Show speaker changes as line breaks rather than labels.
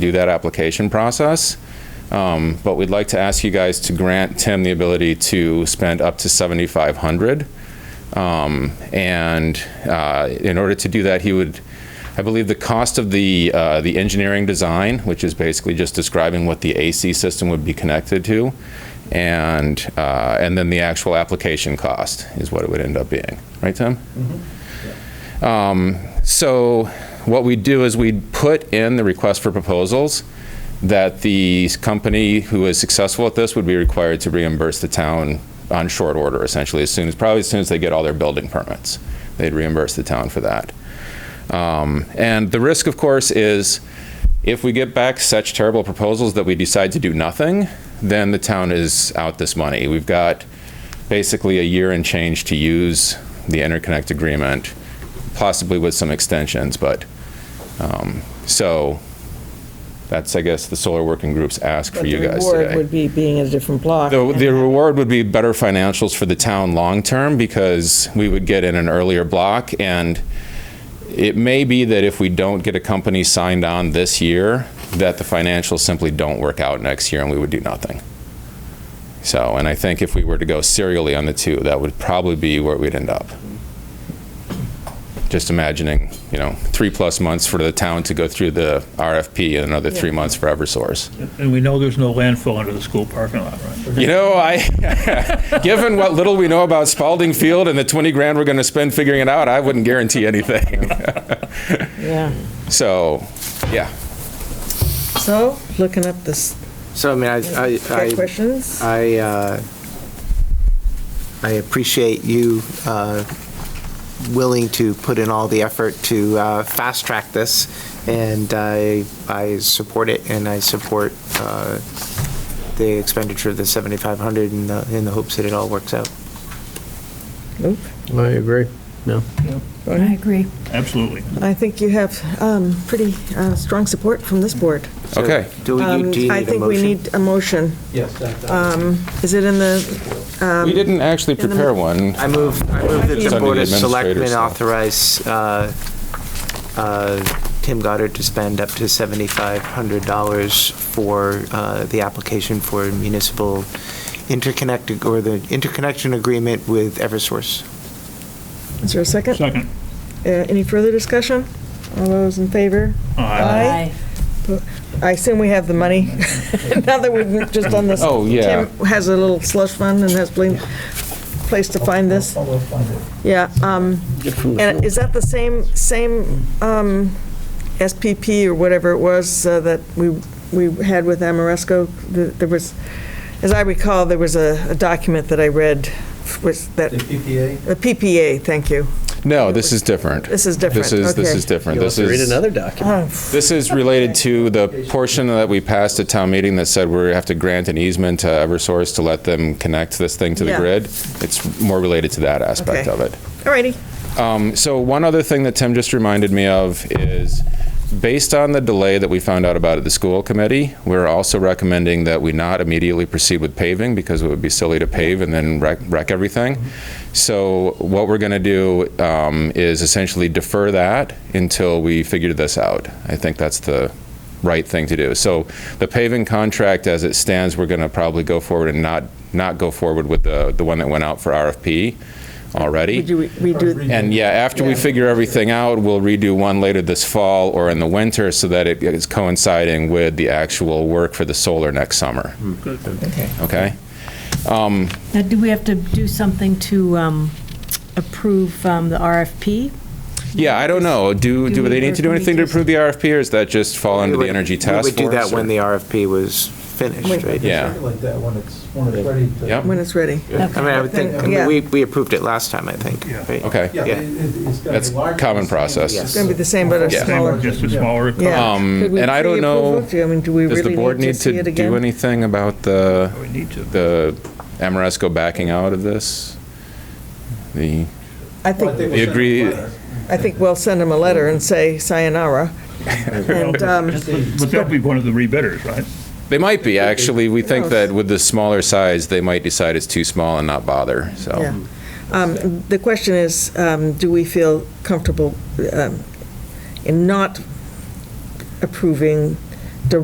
do that application process. Um, But we'd like to ask you guys to grant Tim the ability to spend up to 7,500. Um, And uh, in order to do that, he would, I believe the cost of the, uh, the engineering design, which is basically just describing what the AC system would be connected to, and, uh, and then the actual application cost is what it would end up being. Right, Tim? So what we do is we put in the request for proposals that the company who is successful at this would be required to reimburse the town on short order, essentially, as soon as, probably as soon as they get all their building permits. They'd reimburse the town for that. Um, And the risk, of course, is if we get back such terrible proposals that we decide to do nothing, then the town is out this money. We've got basically a year and change to use the interconnect agreement, possibly with some extensions, but, um, so, that's, I guess, the solar working groups ask for
But
you guys
The
today.
reward would be being in a different block.
The, the reward would be better financials for the town long-term because we would get in an earlier block. And it may be that if we don't get a company signed on this year, that the financials simply don't work out next year and we would do nothing. So, and I think if we were to go serially on the two, that would probably be where we'd end up. Just imagining, you know, three-plus months for the town to go through the RFP and another three months for Eversource.
And we know there's no landfill under the school parking lot, right?
You know, I, given what little we know about Spalding Field and the 20 grand we're going to spend figuring it out, I wouldn't guarantee anything.
Yeah.
So, yeah.
So, looking up this,
So, I mean, I,
got
I,
questions?
I, I, uh, I appreciate you uh, willing to put in all the effort to uh, fast-track this, and I, I support it, and I support uh, the expenditure of the 7,500 in the, in the hopes that it all works out.
Nope.
I agree, no.
I agree.
Absolutely.
I think you have um, pretty uh, strong support from this board.
So
Okay.
Do you,
Um,
do you need a motion?
I think we need a motion.
Yes.
Um, Is it in the, um,
We didn't actually
the-
prepare one.
I move, I move that
It's
the
under
Board
the
of Selectmen
administrator's stuff.
authorize uh, uh, Tim Goddard to spend up to $7,500 for uh, the application for municipal interconnect, or the interconnection agreement with Eversource.
is there a second? Uh,
Second.
Any further discussion? All those in favor?
Aye.
I assume we have the money, now that we've just done this.
Oh, yeah.
Tim has a little slush fund and has been, place to find this. Yeah, um, and is that the same, same, um, SPP or whatever it was uh, that we, we had with Amoresco? Th- There was, as I recall, there was a, a document that I read, was that,
PPA?
a PPA, thank you.
No, this is different.
This is different,
This is, this
okay.
is different.
You'll have
This
to read
is,
another document.
this is related to the portion that we passed at town meeting that said we have to grant an easement to Eversource to let them connect this thing to the
Yeah.
grid. It's more related to that aspect
Okay.
of it.
All righty,
So one other thing that Tim just reminded me of is, based on the delay that we found out about at the school committee, we're also recommending that we not immediately proceed with paving because it would be silly to pave and then wreck, wreck everything. So what we're going to do um, is essentially defer that until we figure this out. I think that's the right thing to do. So the paving contract, as it stands, we're going to probably go forward and not, not go forward with the, the one that went out for RFP already.
we do, we do,
And yeah, after we figure everything out, we'll redo one later this fall or in the winter so that it is coinciding with the actual work for the solar next summer. Okay?
Now, do we have to do something to um, approve um, the RFP?
Yeah, I don't know. Do,
Do
do
we-
they need to do
or do we
anything to
just-
approve the RFP or does that just fall Oh, under
We
the
would-
Energy Task Force?
We would do that
or-
when the RFP was finished, right?
Yeah.
Like that when it's, when it's ready to.
Yep.
when it's ready.
I mean, I would think, I mean,
Yeah.
we, we approved it last time, I think,
Yeah.
right?
Okay.
Yeah,
Yeah.
it- it- it's gonna
That's
be larger.
common process.
Yes.
It's gonna be the same, but a
Yeah.
smaller.
Just a smaller.
Yeah.
Um,
Could we
And I don't
pre-approve
know,
it? Do you- I mean, do we
does the
really
board
need to
need
see
to
it
do
again?
anything about the,
We need to.
the Amoresco backing out of this? The,
I
Well, I
think,
we'll send
agree-
a letter.
I think we'll send them a letter and say sayonara. And, um,
But that'll be one of the rebidders, right?
They might be, actually. We think
knows?
that with the smaller size, they might decide it's too small and not bother,
yeah.
so.
Um, The question is, um, do we feel comfortable um, in not approving